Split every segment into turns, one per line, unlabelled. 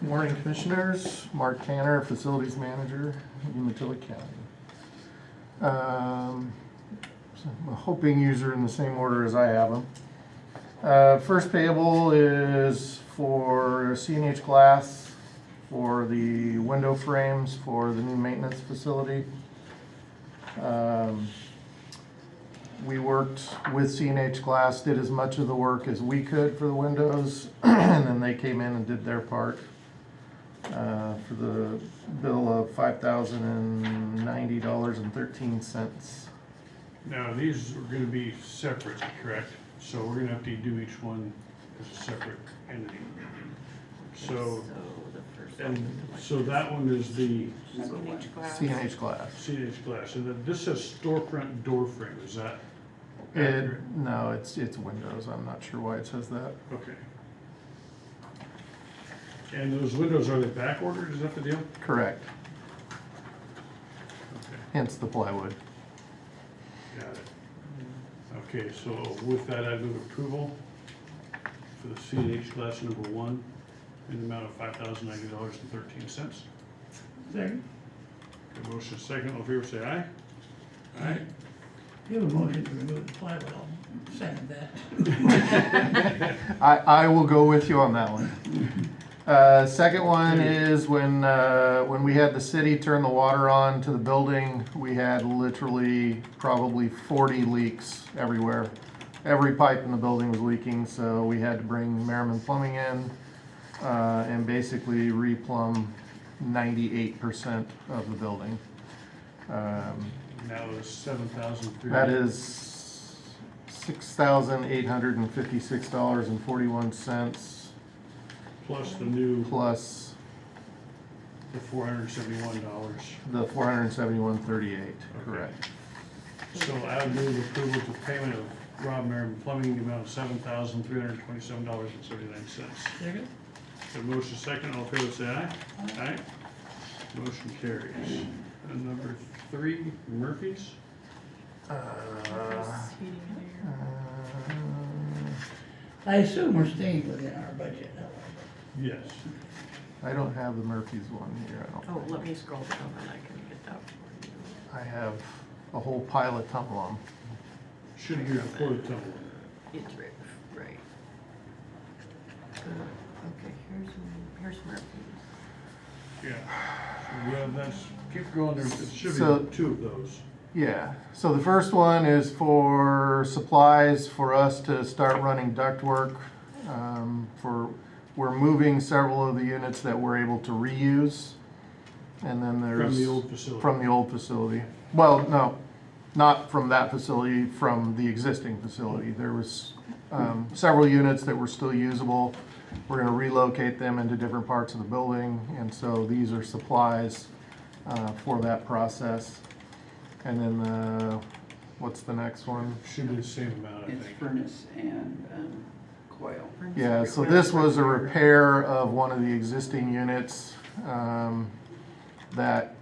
Morning Commissioners, Mark Tanner, Facilities Manager, Umatilla County. Um, so I'm hoping these are in the same order as I have them. Uh, First payable is for CNH Glass for the window frames for the new maintenance facility. Um, We worked with CNH Glass, did as much of the work as we could for the windows, and then they came in and did their part uh, for the bill of five thousand and ninety dollars and thirteen cents.
Now, these are gonna be separate, correct? So we're gonna have to do each one as a separate entity. So, and so that one is the
CNH Glass.
CNH glass, and then this says storefront door frame, is that
It,
accurate?
no, it's, it's windows, I'm not sure why it says that.
Okay. And those windows, are they back ordered, is that the deal?
Correct,
Okay,
hence the plywood.
got it. Okay, so with that, I move approval for the CNH glass number one in the amount of five thousand ninety dollars and thirteen cents.
Second.
Got a motion second, all in favor say aye. Aye.
You have a motion to remove the plywood, I'll second that.
I, I will go with you on that one. Uh, second one is when, uh, when we had the city turn the water on to the building, we had literally probably forty leaks everywhere. Every pipe in the building was leaking, so we had to bring Merriman Plumbing in, uh, and basically re-plumb ninety-eight percent of the building. Um,
Now it's seven thousand three
that
hundred.
is six thousand eight hundred and fifty-six dollars and forty-one cents
Plus the new,
plus
the four hundred and seventy-one dollars.
the four hundred and seventy-one thirty-eight,
Okay.
correct.
So I would move approval to payment of Rob Merriman Plumbing, the amount of seven thousand three hundred and twenty-seven dollars and seventy-nine cents.
Second?
The motion second, all in favor say aye. Aye. Motion carries. And number three, Murphy's.
Uh, uh,
I assume we're staying within our budget.
Yes.
I don't have the Murphy's one here, I
Oh,
don't think.
let me scroll down and I can get that for you.
I have a whole pile of Tumblum.
Should have used the quarter tunnel.
It's right, right. Good. Okay, here's, m- here's Murphy's.
Yeah. Well, that's, keep going, there should
So-
be two of those.
Yeah, so the first one is for supplies for us to start running ductwork. Um, for, we're moving several of the units that we're able to reuse. And then there's.
From the old facility.
From the old facility. Well, no, not from that facility, from the existing facility. There was um, several units that were still usable. We're gonna relocate them into different parts of the building, and so these are supplies uh, for that process. And then, uh, what's the next one?
Should be the same amount, I
It's
think.
furnace and um, coil.
Yeah, so this was a repair of one of the existing units um, that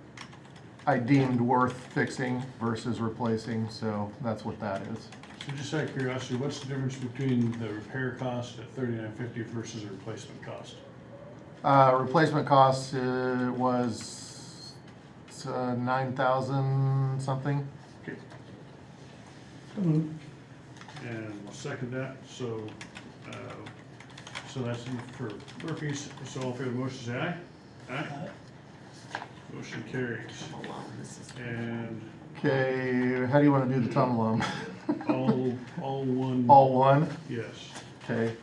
I deemed worth fixing versus replacing, so that's what that is.
So just out of curiosity, what's the difference between the repair cost at thirty-nine fifty versus the replacement cost?
Uh, Replacement cost uh, was uh, nine thousand something.
Okay.
So moved.
And I'll second that, so, uh, so that's for Murphy's, so all in favor of the motion, say aye. Aye,
Uh,
motion carries.
Hold on, this is.
And
Okay, how do you want to do the tum lum?
all, all one.
All one?
Yes.
Okay.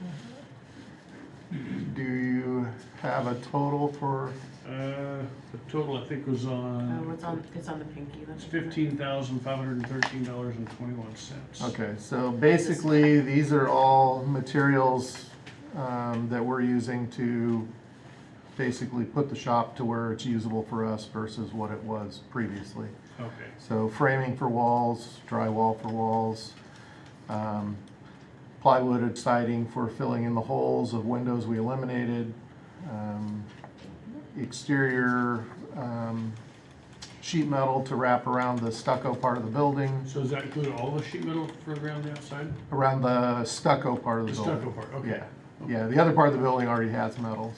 Do you have a total for,
Uh, the total I think was
Oh,
on,
it's on, it's on the pinky. let
it's
me-
fifteen thousand five hundred and thirteen dollars and twenty-one cents.
okay, so basically, these are all materials um, that we're using to basically put the shop to where it's usable for us versus what it was previously.
Okay,
So framing for walls, drywall for walls, um, plywood and siding for filling in the holes of windows we eliminated, um, exterior um, sheet metal to wrap around the stucco part of the building,
so does that include all the sheet metal for around the outside?
around the stucco part of
The
the
stucco
building.
part, okay.
Yeah, yeah, the other part of the building already has metal,